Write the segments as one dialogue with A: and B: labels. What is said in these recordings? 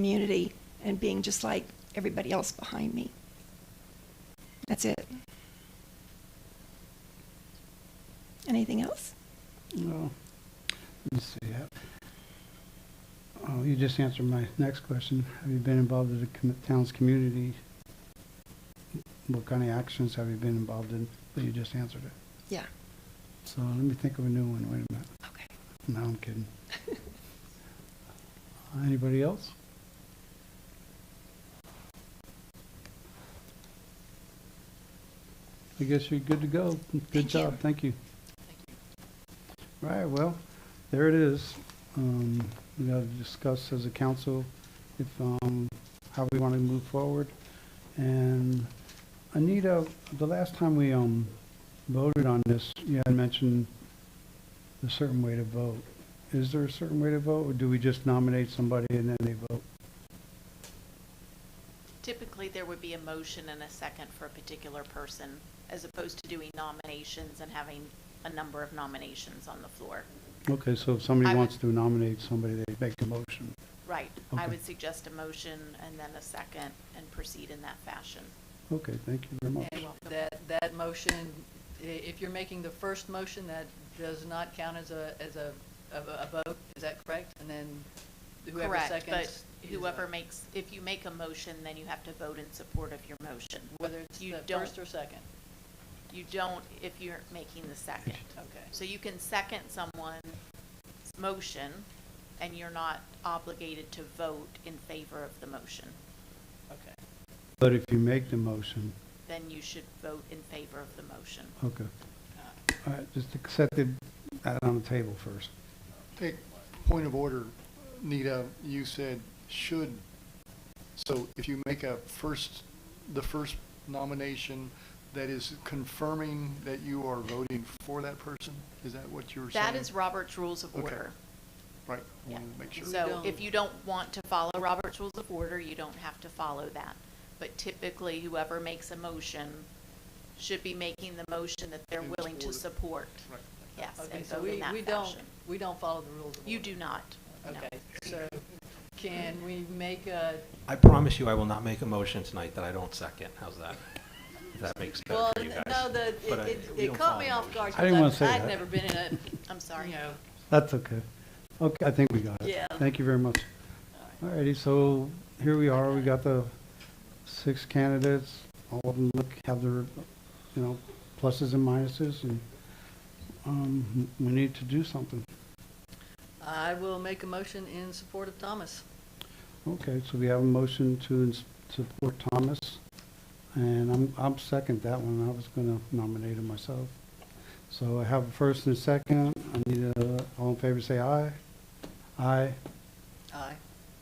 A: community and being just like everybody else behind me. That's it. Anything else?
B: Oh, Let's see. uh, Oh, you just answered my next question. Have you been involved in the commu- town's community? What kind of actions have you been involved in? But you just answered it.
A: Yeah.
B: So let me think of a new one. Wait a minute.
A: Okay.
B: No, I'm kidding. Anybody else? I guess you're good to go. Good
A: Thank you.
B: job, thank you. All right, well, there it is. Um, We got to discuss as a council if, um, how we want to move forward. And Anita, the last time we um, voted on this, you had mentioned a certain way to vote. Is there a certain way to vote, or do we just nominate somebody and then they vote?
C: Typically, there would be a motion and a second for a particular person, as opposed to doing nominations and having a number of nominations on the floor.
B: Okay, so if somebody
C: I would-
B: wants to nominate somebody, they make a motion.
C: Right. I
B: Okay.
C: would suggest a motion and then a second and proceed in that fashion.
B: Okay, thank you very much.
D: And That, that motion, i- if you're making the first motion, that does not count as a, as a, of a a vote, is that correct? And then whoever
C: Correct,
D: seconds.
C: but
D: is uh,
C: whoever
D: a-
C: makes, if you make a motion, then you have to vote in support of your motion.
D: Whether it's
C: you
D: the
C: don't-
D: first or second,
C: You don't if you're making the second.
D: okay.
C: So you can second someone's motion, and you're not obligated to vote in favor of the motion.
D: Okay.
B: But if you make the motion,
C: Then you should vote in favor of the motion.
B: okay.
D: Uh,
B: All right, just accept it out on the table first.
E: Take point of order, Nita, you said should. So if you make a first, the first nomination, that is confirming that you are voting for that person? Is that what you were saying?
C: That is Robert's Rules of
E: Okay.
C: Order.
E: Right, I
C: Yeah.
E: wanted to make sure.
C: So if
D: Don't.
C: you don't want to follow Robert's Rules of Order, you don't have to follow that. But typically, whoever makes a motion should be making the motion that they're
E: And
C: willing to support.
E: Right.
C: Yes,
D: Okay,
C: and
D: so
C: vote in
D: we,
C: that
D: we don't,
C: fashion.
D: we don't follow the rules of
C: You
D: order.
C: do not. no.
D: Okay, so can we make a,
F: I promise you I will not make a motion tonight that I don't second. How's that? If that makes sense
D: well,
F: for you guys.
D: no, the,
F: But I-
D: it,
F: we
D: it
F: don't
D: caught
F: follow
D: me off
F: motions.
D: guard.
B: I didn't wanna
D: because
B: say
D: I've-
B: that.
D: I've never been in a,
C: I'm sorry.
D: you know,
B: That's okay. Okay, I think we got it.
D: Yeah.
B: Thank you very much. All righty, so here we are, we got the six candidates, all of them look, have their, you know, pluses and minuses, and, um, we need to do something.
D: I will make a motion in support of Thomas.
B: Okay, so we have a motion to ins- support Thomas, and I'm, I'm second that one, I was gonna nominate him myself. So I have a first and a second, I need a, all in favor say aye. Aye,
D: Aye.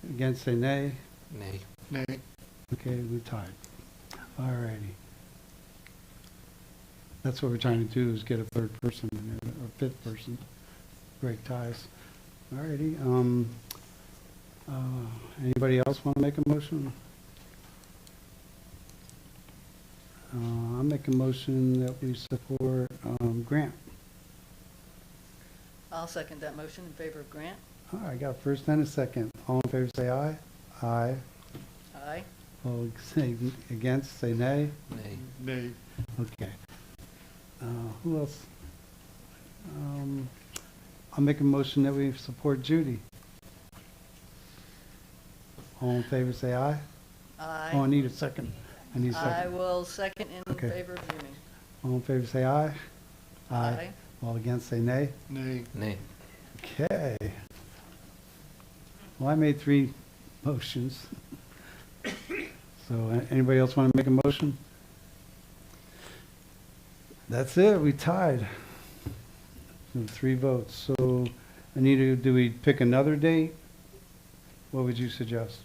B: against say nay.
F: Nay.
E: Nay,
B: Okay, we're tied. All righty. That's what we're trying to do, is get a third person in there, or fifth person. Great ties. All righty, um, uh, anybody else want to make a motion? Uh, I'll make a motion that we support, um, Grant.
D: I'll second that motion in favor of Grant.
B: All right, I got a first and a second. All in favor, say aye. Aye.
D: Aye.
B: All say against, say nay.
F: Nay.
E: nay.
B: Okay. Uh, Who else? Um, I'll make a motion that we support Judy. All in favor, say aye. Oh, I
D: Aye.
B: need a second. I need a
D: I
B: second.
D: will second in
B: Okay.
D: favor of Ewing.
B: All in favor, say aye.
D: Aye.
B: All against, say nay.
E: Nay.
F: Nay.
B: Okay. Well, I made three motions. So a- anybody else want to make a motion? That's it, we tied. And Three votes. So Anita, do we pick another date? What would you suggest?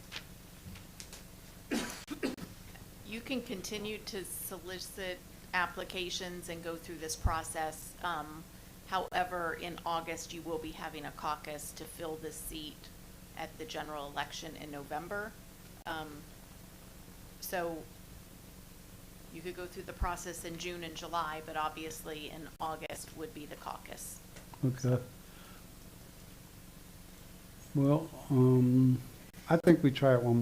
C: You can continue to solicit applications and go through this process. Um, However, in August, you will be having a caucus to fill this seat at the general election in November. Um, So you could go through the process in June and July, but obviously in August would be the caucus.
B: Okay. Well, um, I think we try it one more